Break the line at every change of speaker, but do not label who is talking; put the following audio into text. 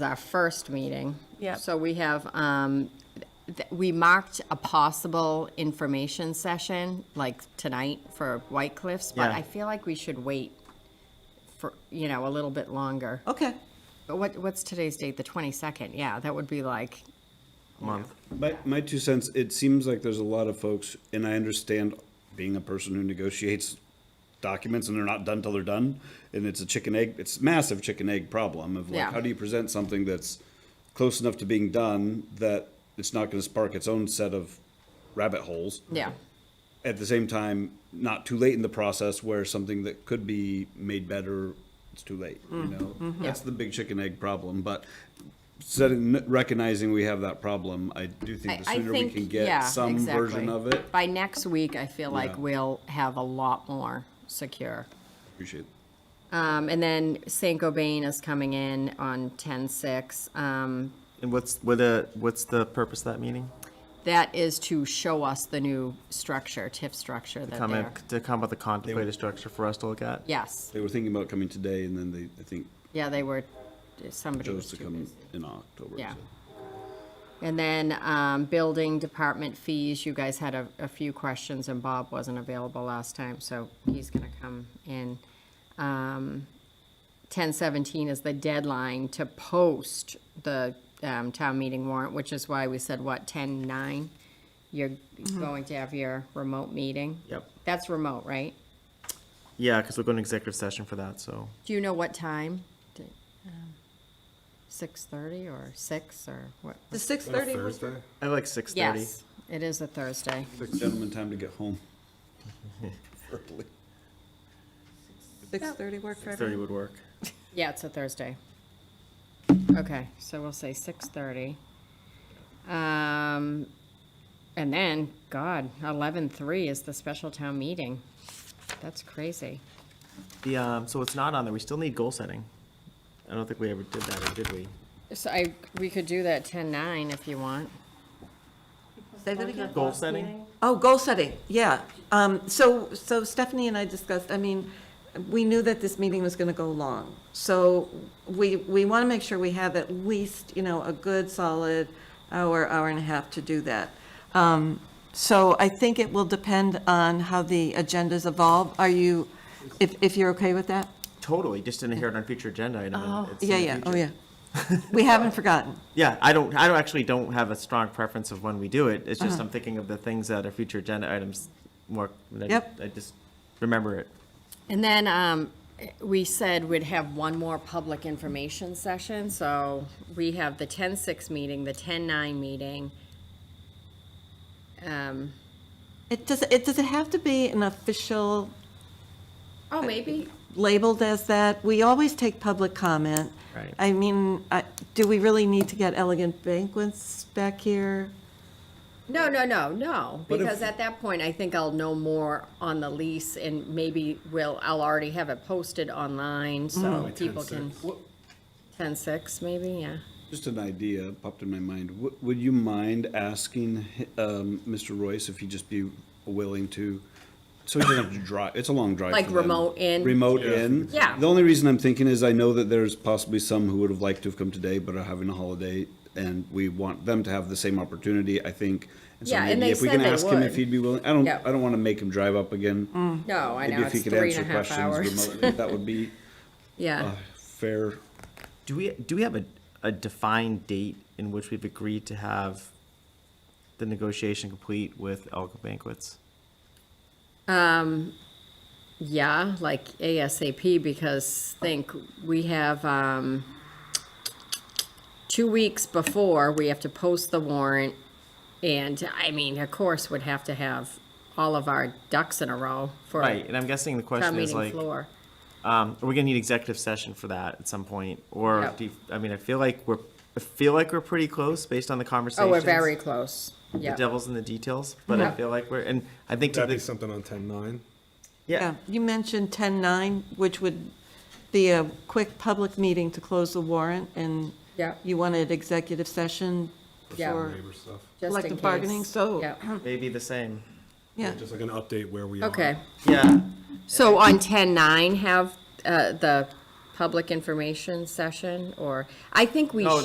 our first meeting.
Yep.
So we have, um, th- we marked a possible information session, like tonight for White Cliffs, but
Yeah.
I feel like we should wait for, you know, a little bit longer.
Okay.
But what, what's today's date? The 22nd? Yeah, that would be like,
Month.
My, my two cents, it seems like there's a lot of folks, and I understand being a person who negotiates documents and they're not done till they're done, and it's a chicken egg, it's massive chicken egg problem of like,
Yeah.
how do you present something that's close enough to being done that it's not gonna spark its own set of rabbit holes?
yeah,
At the same time, not too late in the process where something that could be made better, it's too late,
Mm.
you know?
Mm-hmm.
That's the big chicken egg problem, but setting, recognizing we have that problem, I do think the
I- I
sooner we
think-
can get
yeah,
some version
exactly.
of it.
By next week, I feel like
Yeah.
we'll have a lot more secure.
Appreciate it.
Um, and then Saint Gobain is coming in on ten six. Um,
And what's, what, uh, what's the purpose of that meeting?
that is to show us the new structure, TIF structure that
Comment,
they're.
to come up with a contemplated structure for us to look at?
Yes,
They were thinking about coming today and then they, I think,
yeah, they were, somebody
chose
was
to
too
come
busy.
in October.
Yeah.
so.
And then, um, building department fees, you guys had a, a few questions and Bob wasn't available last time, so he's gonna come in. Um, ten seventeen is the deadline to post the, um, town meeting warrant, which is why we said, what, ten nine? You're going to have your remote meeting?
Yep.
That's remote, right?
Yeah, because we're going to executive session for that, so.
Do you know what time? Six thirty or six or what?
The six thirty was
Thursday?
I like six thirty.
Yes, it is a Thursday.
Gentlemen, time to get home. Early.
six thirty work for
Thirty
everyone.
would work.
Yeah, it's a Thursday. Okay, so we'll say six thirty. Um, and then, God, eleven three is the special town meeting. That's crazy.
The, um, so it's not on there. We still need goal setting. I don't think we ever did that, or did we?
So I, we could do that ten nine if you want.
Say that again.
Goal setting?
Oh, goal setting, yeah. Um, so, so Stephanie and I discussed, I mean, we knew that this meeting was gonna go long. So we, we wanna make sure we have at least, you know, a good solid hour, hour and a half to do that. Um, so I think it will depend on how the agendas evolve. Are you, if, if you're okay with that?
Totally, just didn't hear it on future agenda item. and it's in
Yeah,
the
yeah, oh,
future.
yeah. We haven't forgotten.
Yeah, I don't, I don't, actually don't have a strong preference of when we do it. It's just
Uh-huh.
I'm thinking of the things that are future agenda items more. I-
Yep.
I just remember it.
And then, um, we said we'd have one more public information session, so we have the ten six meeting, the ten nine meeting. Um,
It does, it, does it have to be an official
oh, maybe,
labeled as that? We always take public comment.
Right.
I mean, I- do we really need to get Elegant Banquets back here?
No, no, no, no, because at that point, I think I'll know more on the lease and maybe will, I'll already have it posted online, so people can. Ten six, maybe, yeah.
Just an idea popped in my mind. W- Would you mind asking um, Mr. Royce if he'd just be willing to, so he doesn't have to drive, it's a long drive.
Like
for them.
remote in?
Remote in.
Yeah.
The only reason I'm thinking is I know that there's possibly some who would have liked to have come today but are having a holiday, and we want them to have the same opportunity, I think. so
Yeah, and they
maybe if we
said
can
they
ask him
would.
If he'd be willing, I don't,
Yeah.
I don't want to make him drive up again.
No, I
Maybe
know,
if he
it's
could
three
answer
and a half
questions
hours.
remotely, Uh, That would be
Yeah,
a fair
Do we, do we have a, a defined date in which we've agreed to have the negotiation complete with Elk Banquets?
yeah, like ASAP, because think, we have, um, two weeks before, we have to post the warrant, and, I mean, of course, would have to have all of our ducks in a row for
Right,
a
and I'm guessing the
town
question is
meeting
like,
floor.
um, are we gonna need executive session for that at some point? Or
Yep.
do, you- I mean, I feel like we're, I feel like we're pretty close based on the conversations.
Oh, we're very close, yeah.
The devil's in the details, but I
Yep.
feel like we're, and I think to
That'd be
the,
something on ten nine.
yeah,
You mentioned 10-9, which would be a quick public meeting to close the warrant, and
Yeah.
you wanted executive session
Yeah.
for
Labor stuff.
Just in
collective
case.
bargaining, so,
Yeah,
maybe the same.
yeah.
Just like an
Uh-huh.
update where we are.
okay.
Yeah,
So on ten nine, have, uh, the public information session, or, I think we
No,